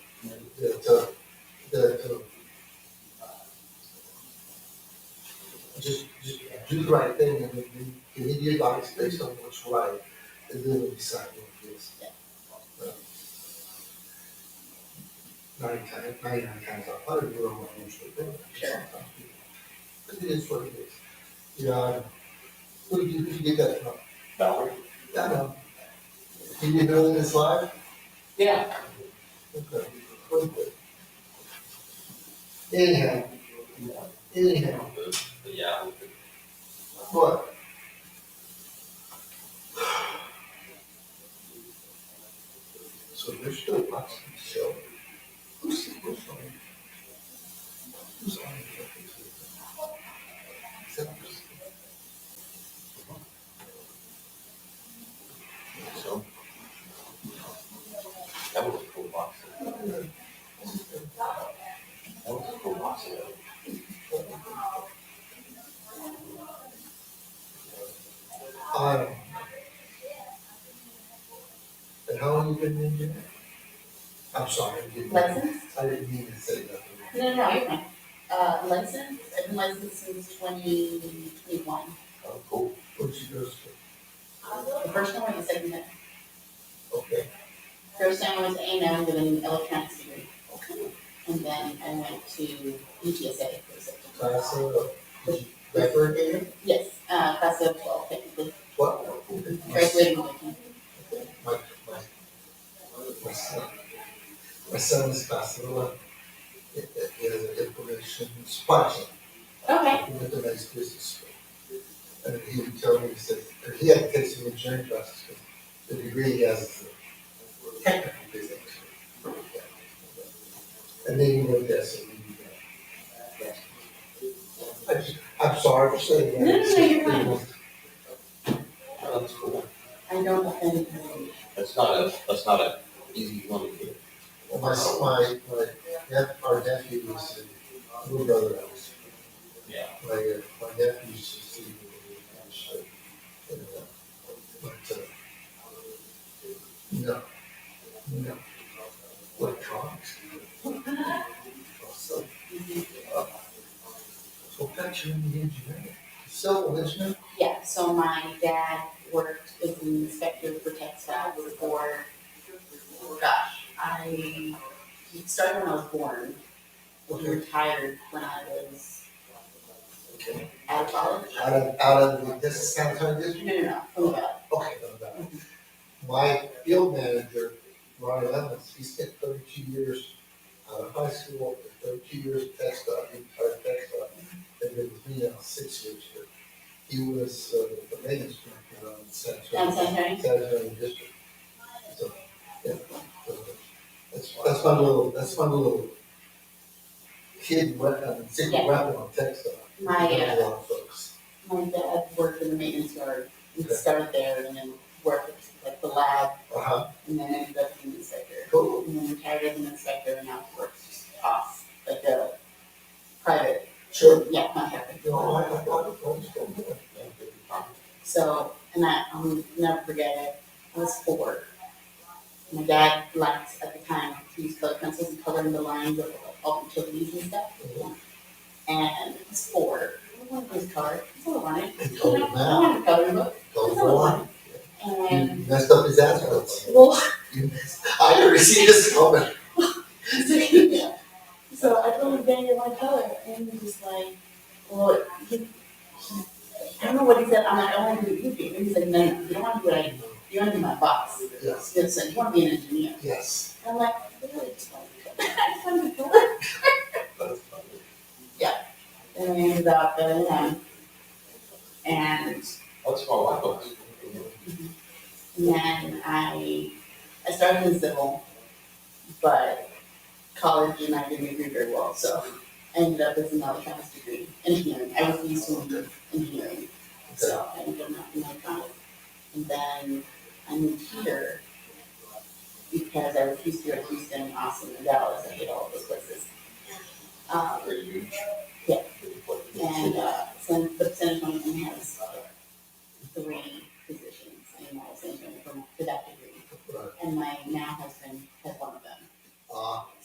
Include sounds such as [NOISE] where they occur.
that, uh, that, uh, just, just do the right thing and then you need your advice based on what's right, and then we'll decide what it is. But Ninety times, ninety-nine times out of hundred, you're on what you should do. Sure. But it is what it is. You know, where did you, where did you get that from? Valerie? I know. Can you do it in this live? Yeah. Okay. Anyhow, anyhow, But, but yeah, we could- but. So there's still lots of show. Who's, who's on? Who's on? Except for- so. That was a cool box. That was a cool box. Um. And how long you been in here? I'm sorry, I didn't, I Licensed? didn't mean to say that. No, no, no, you're fine. Uh, licensed, I've been licensed since twenty twenty-one. Oh, cool. What you go to, The first time I was second time. okay, First time I was A and M with an electronics degree. okay, And then I went to UTSA for a second. so I said, uh, did you graduate again? Yes, uh, class of twelve, technically, What? Okay. graduating with me. My, my, my son, my son is passing along. It, it, it is an information sponsor. Okay, He went to nice business school. And he would tell me, he said, and he had to take some engineering classes, because the degree he has is a technical business. And then he went there, so he knew that. I just- I'm sorry for saying that. No, no, no, you're fine. Oh, That's cool. I don't have any information. That's not a, that's not a easy one to get. Well, My, my, my, nep- our nephew was in Blue Brother House. Yeah. My, uh, my nephew used to see me in the show. And, uh, But, uh, no, no. Electronics. So, uh, so that's your engineering. Civil engineering? Yeah, so my dad worked as an inspector for textiles for, gosh, I, he started when I was born. He Okay. retired when I was Okay. out of college. Out of, out of, the- this is San Antonio district? No, no, no, from about, Okay, no, no. My field manager, Ronnie Lemons, he spent thirty-two years out of high school, and thirty-two years at Tech Dot, he retired Tech Dot, and then with me now six years here. He was, uh, the maintenance director on San down Antonio, San Antonio. San Antonio District. So, yeah, so that's, that's my little, that's my little uh, hidden weapon, secret Yeah. weapon on Tech Dot. My, Not uh, a lot of folks. my dad worked in the maintenance yard, he Okay. started there and then worked like the lab Uh-huh, and then ended up being an inspector. cool, And then retired as an inspector and now works just off, like a private, sure. yeah, contractor. You know, I, I thought it was good. So, and I, I'll never forget it, I was four. My dad liked, at the time, he used color pencils and coloring the lines of all the utilities and stuff. And it was four, I wanted his car, that's all I wanted. He told him I that, wanted a coloring book, told him why. and, You messed up his ass. well, [LAUGHS] You messed, I never seen this comment. So I told him Daniel my color, and he was like, well, he, he, I don't know what he said. I'm like, I want to do what you do. And he's like, no, no, you don't want to do what I do. You want to be my boss. Yes, He said, you want to be an engineer. yes. And I'm like, really? [LAUGHS] just want to do it. I just want to do it. And we ended up and um, and That's my wife. was. then I I started in civil, but college and I didn't do very well, so I ended up with an electronics degree, engineering. I was used to engineering. Okay. So I ended up not in my college. And then I moved here because I refused to go to Houston, Austin, and Dallas. I hate all those places. Um, Pretty huge. Yeah. and, uh, so the percentage one has three